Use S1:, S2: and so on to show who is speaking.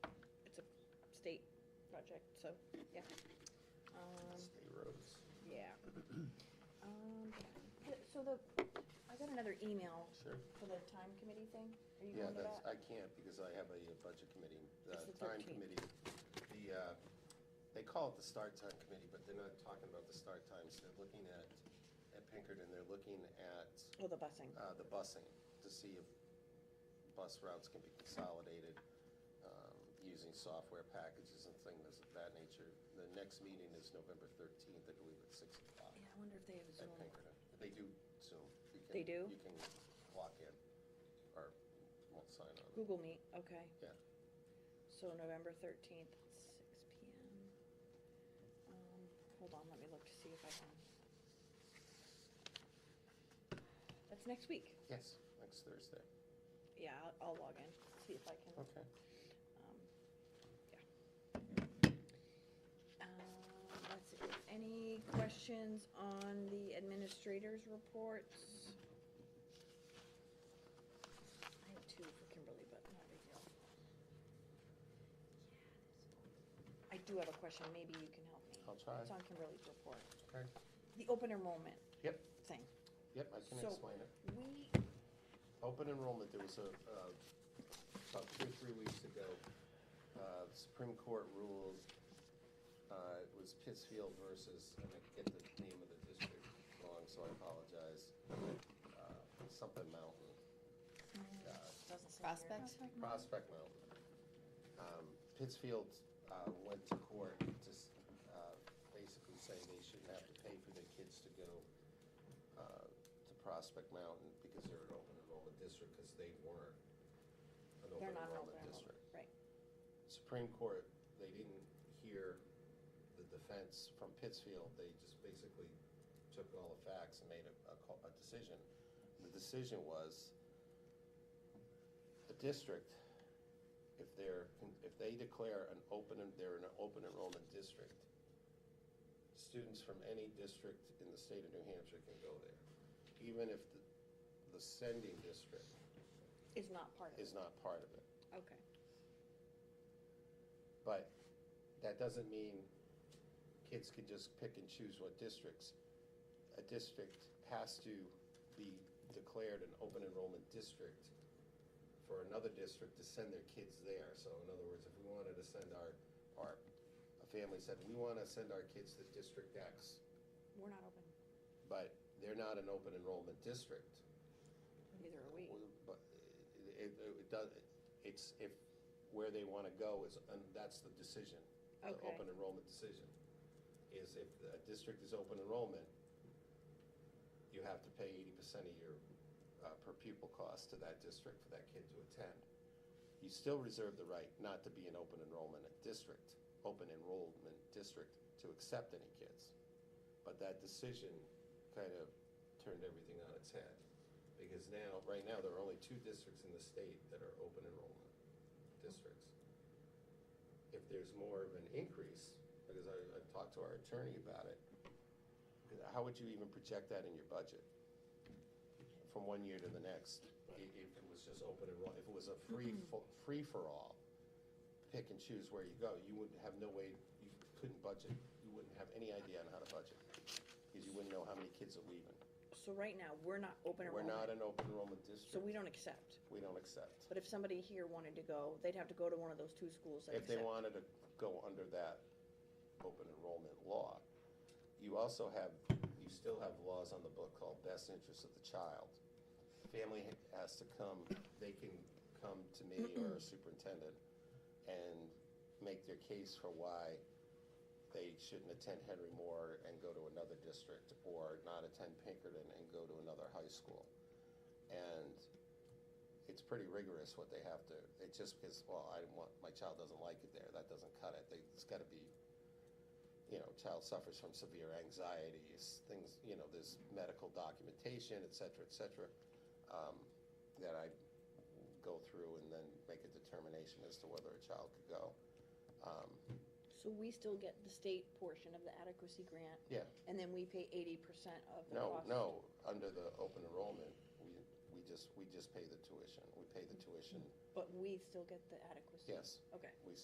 S1: project, so, yeah. Um,
S2: State roads.
S1: yeah. Um, th- So the, I got another email
S2: Sure.
S1: for the time committee thing. Are you
S2: Yeah,
S1: going to
S2: that's, I
S1: that?
S2: can't because I have a budget committee,
S1: It's
S2: the
S1: the
S2: time
S1: 13th.
S2: committee. The, uh, they call it the start time committee, but they're not talking about the start times. They're looking at, at Pinkerton, they're looking at
S1: Oh, the busing.
S2: uh, the busing to see if bus routes can be consolidated um, using software packages and things of that nature. The next meeting is November 13th, I believe, at 6 o'clock
S1: Yeah, I wonder if they have a Zoom.
S2: at Pinkerton. They do Zoom. You can-
S1: They do?
S2: You can walk in or won't sign on.
S1: Google Meet, okay.
S2: Yeah.
S1: So November thirteenth, six P M. Um, hold on, let me look to see if I can. That's next week.
S2: Yes, next Thursday.
S1: Yeah, I'll, I'll log in, see if I can.
S2: Okay.
S1: Um, yeah. Um, that's it. Any questions on the administrators' reports? I have two for Kimberly, but not a big deal. I do have a question, maybe you can help me.
S2: I'll try.
S1: It's on Kimberly's report.
S2: Okay.
S1: The open enrollment
S2: Yep,
S1: thing.
S2: yep, I can
S1: So,
S2: explain it.
S1: We,
S2: Open enrollment, there was a, uh, about two or three weeks ago, uh, Supreme Court ruled, uh, it was Pittsfield versus, and I get the name of the district wrong, so I apologize. Uh, Something Mountain, uh,
S1: doesn't say. here.
S3: Prospect?
S2: Prospect Mountain. Um, Pittsfield uh, went to court to s- uh, basically say they shouldn't have to pay for their kids to go uh, to Prospect Mountain because they're an open enrollment district, because they weren't an open
S1: They're not an open
S2: enrollment
S1: enrollment,
S2: district.
S1: right.
S2: Supreme Court, they didn't hear the defense from Pittsfield, they just basically took all the facts and made a, a call, a decision. The decision was, the district, if they're, if they declare an open, they're an open enrollment district, students from any district in the state of New Hampshire can go there, even if the, the sending district
S1: Is not part of it.
S2: is not part of it.
S1: Okay.
S2: But that doesn't mean kids can just pick and choose what districts. A district has to be declared an open enrollment district for another district to send their kids there. So in other words, if we wanted to send our, our, a family said, we want to send our kids to District X,
S1: We're not open,
S2: but they're not an open enrollment district.
S1: neither are we.
S2: Well, But it, it, it does, it's if, where they wanna go is, and that's the decision. the
S1: Okay.
S2: Open enrollment decision, is if a district is open enrollment, you have to pay eighty percent of your, uh, per pupil cost to that district for that kid to attend. You still reserve the right not to be an open enrollment district, open enrollment district, to accept any kids. But that decision kind of turned everything on its head. Because now, right now, there are only two districts in the state that are open enrollment districts. If there's more of an increase, because I, I've talked to our attorney about it, how would you even project that in your budget? From one year to the next, i- if it was just open enroll, if it was a free, fo- free-for-all, pick and choose where you go, you wouldn't have no way, you couldn't budget, you wouldn't have any idea on how to budget, because you wouldn't know how many kids are leaving.
S1: So right now, we're not open
S2: We're not
S1: enrollment,
S2: an open enrollment district.
S1: so we don't accept.
S2: We don't accept.
S1: But if somebody here wanted to go, they'd have to go to one of those two schools that
S2: If they
S1: accept.
S2: wanted to go under that open enrollment law, you also have, you still have laws on the book called best interest of the child. Family has to come, they can come to me or a superintendent and make their case for why they shouldn't attend Henry Moore and go to another district, or not attend Pinkerton and go to another high school. And it's pretty rigorous what they have to, it's just because, well, I didn't want, my child doesn't like it there, that doesn't cut it, they, it's gotta be, you know, child suffers from severe anxieties, things, you know, there's medical documentation, et cetera, et cetera, um, that I go through and then make a determination as to whether a child could go. Um,
S1: So we still get the state portion of the adequacy grant?
S2: Yeah.
S1: And then we pay eighty percent of the
S2: No,
S1: cost?
S2: no, under the open enrollment, we, we just, we just pay the tuition, we pay the tuition,
S1: But we still get the adequacy?
S2: yes.
S1: Okay.
S2: We